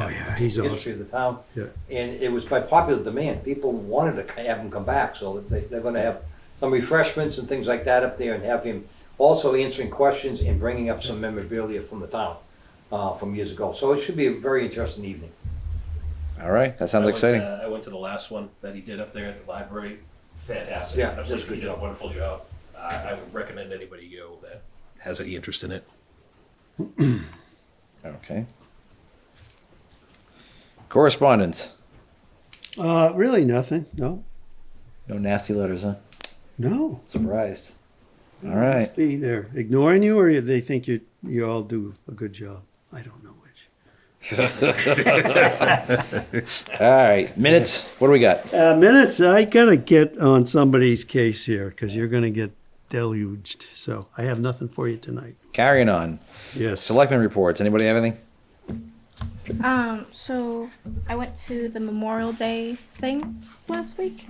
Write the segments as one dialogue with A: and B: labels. A: Oh, He's
B: the
A: awesome.
B: history of the town.
A: Yeah.
B: And it was by popular demand. People wanted to have him come back, so they, they're gonna have some refreshments and things like that up there and have him also answering questions and bringing up some memorabilia from the town, uh, from years ago. So it should be a very interesting evening.
C: All right, that
D: I
C: sounds
D: went,
C: exciting.
D: uh, I went to the last one that he did up there at the library. Fantastic.
B: Yeah, that's
D: Absolutely,
B: good
D: he did a
B: job.
D: wonderful job. I, I would recommend anybody go that has any interest in it.
C: Okay. Correspondence.
A: Uh, really nothing. No,
C: No nasty letters, huh?
A: no.
C: Surprised. All
A: It
C: right.
A: must be they're ignoring you, or they think you you all do a good job. I don't know which.
C: All right. Minutes. What do we got?
A: Uh, minutes. I gotta get on somebody's case here because you're gonna get deluged. So I have nothing for you tonight.
C: Carrying on.
A: Yes.
C: Selectmen reports. Anybody have anything?
E: Um, so I went to the Memorial Day thing last week,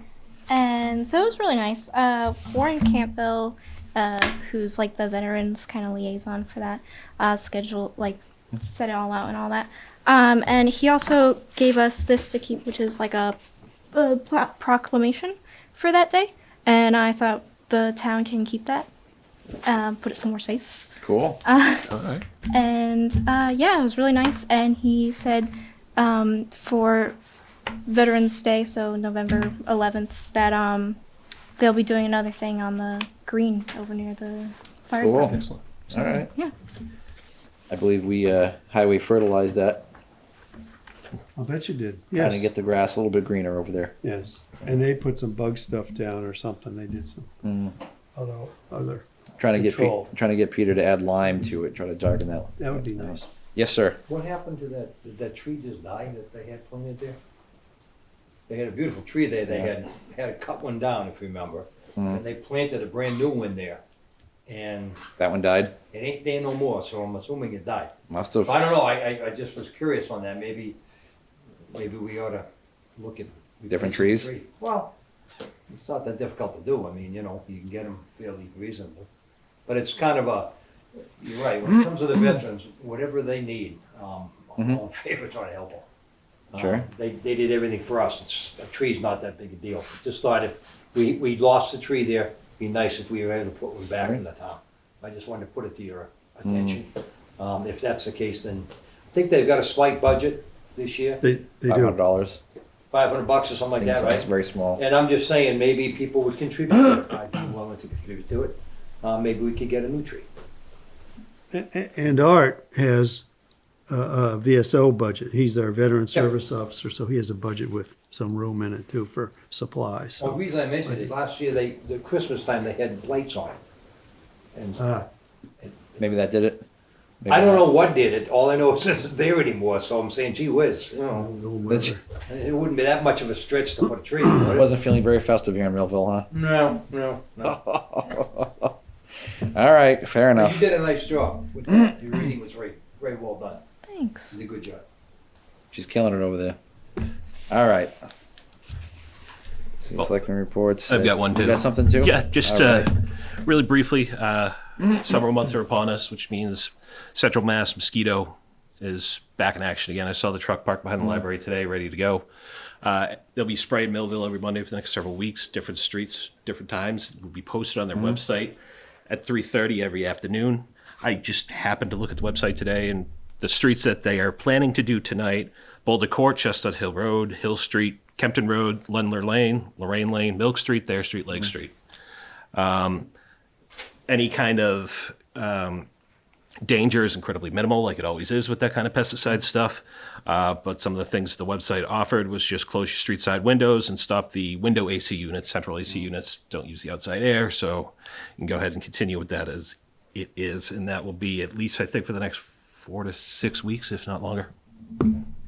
E: and so it was really nice. Uh, Warren Campbell, uh, who's like the veterans kind of liaison for that, uh, schedule like set it all out and all that. Um, and he also gave us this to keep, which is like a, a pla- proclamation for that day, and I thought the town can keep that, um, put it somewhere safe.
C: Cool.
E: And uh, yeah, it was really nice. And he said um, for Veterans Day, so November 11th, that um, they'll be doing another thing on the green over near the fire
C: Cool.
E: department.
D: Excellent.
C: All right.
E: Yeah.
C: I believe we uh, highway fertilized that.
A: I'll bet you did.
C: Trying
A: Yes.
C: to get the grass a little bit greener over there.
A: yes. And they put some bug stuff down or something. They did some
C: Mm.
A: other other.
C: Trying to get
A: Control.
C: Pe- trying to get Peter to add lime to it. Try to darken that.
A: That would be nice.
C: Yes, sir.
B: What happened to that, did that tree just die that they had planted there? They had a beautiful tree there, they had, had to cut one down, if you remember, and they planted a brand new one there. And
C: That one died.
B: it ain't there no more, so I'm assuming it died.
C: Must have.
B: I don't know, I, I, I just was curious on that, maybe, maybe we ought to look at.
C: Different trees?
B: replacing the tree. Well, it's not that difficult to do, I mean, you know, you can get them fairly reasonable, but it's kind of a, you're right, when it comes to the
C: Mm-hmm.
B: veterans, whatever they need, um, I'm all in favor of trying to help them.
C: Sure.
B: Uh, They, they did everything for us, it's, a tree's not that big a deal, just thought if, we, we lost the tree there, it'd be nice if we were able to put one back in the town. I just wanted to put it to your
C: Mm.
B: attention. Um, if that's the case, then I think they've got a slight budget this year,
A: They they
C: Five hundred
A: do.
C: dollars.
B: five hundred bucks or something like that,
C: It's
B: right?
C: very small.
B: And I'm just saying, maybe people would contribute to it. I'd be willing to contribute to it. Uh, maybe we could get a new tree.
A: A- a- And Art has a, a VSO budget. He's our veteran service officer, so he has a budget with some room in it too for supplies.
B: Well, the
A: So,
B: reason I mentioned it, last year, they, the Christmas time, they had lights on. And
A: uh,
C: Maybe that did it. Maybe
B: I don't
C: not.
B: know what did it. All I know is it's not there anymore, so I'm saying, gee whiz, you know.
A: no weather.
B: It wouldn't be that much of a stretch to put a tree, would
C: I
B: it?
C: wasn't Oh, feeling very festive here in Millville, huh?
B: No, no, no.
C: All right, fair
B: Well,
C: enough.
B: You did a nice job. with that. Your reading was very, very well done. You
E: Thanks.
B: did a good job.
C: She's killing it over there. All right. See, selectmen reports.
D: I've
C: Uh,
D: got one,
C: You
D: too.
C: got something too?
D: Yeah,
C: All
D: just
C: right.
D: uh, really briefly, uh, several months are upon us, which means Central Mass mosquito is back in action again. I saw the truck parked behind the library today, ready to go. Uh, they'll be spraying Millville every Monday for the next several weeks, different streets, different times. It will be posted on their website at 3:30 every afternoon. I just happened to look at the website today, and the streets that they are planning to do tonight: Boulder Court, Chestnut Hill Road, Hill Street, Kempton Road, Lendler Lane, Lorraine Lane, Milk Street, Thayer Street, Lake Street any kind of um, danger is incredibly minimal, like it always is with that kind of pesticide stuff. Uh, but some of the things the website offered was just close your street side windows and stop the window AC units, central AC units. Don't use the outside air. So you can go ahead and continue with that as it is. And that will be at least, I think, for the next four to six weeks, if not longer.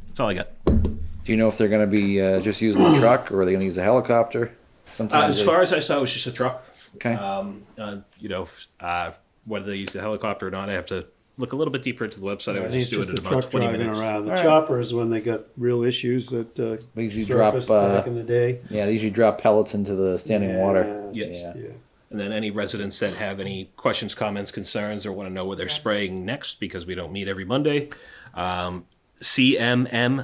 D: That's all I got.
C: Do you know if they're going to be uh, just using the truck or are they going to use a helicopter?
D: Uh,
C: Sometimes
D: as
C: they-
D: far as I saw, it was just a truck.
C: Okay.
D: Um, uh, you know, uh, whether they use the helicopter or not, I have to look a little bit deeper into the website. I
A: I
D: was
A: think it's
D: just
A: just
D: doing it in
A: the
D: about
A: truck
D: 20
A: driving
D: minutes.
A: around. The
C: All right.
A: chopper is when they got real issues that uh,
C: They usually drop,
A: surfaced
C: uh,
A: back in the day.
C: yeah, they usually drop pellets into the standing water.
A: Yeah.
D: Yes.
C: Yeah.
A: Yeah.
D: And then any residents that have any questions, comments, concerns, or want to know where they're spraying next, because we don't meet every Monday, um, CMM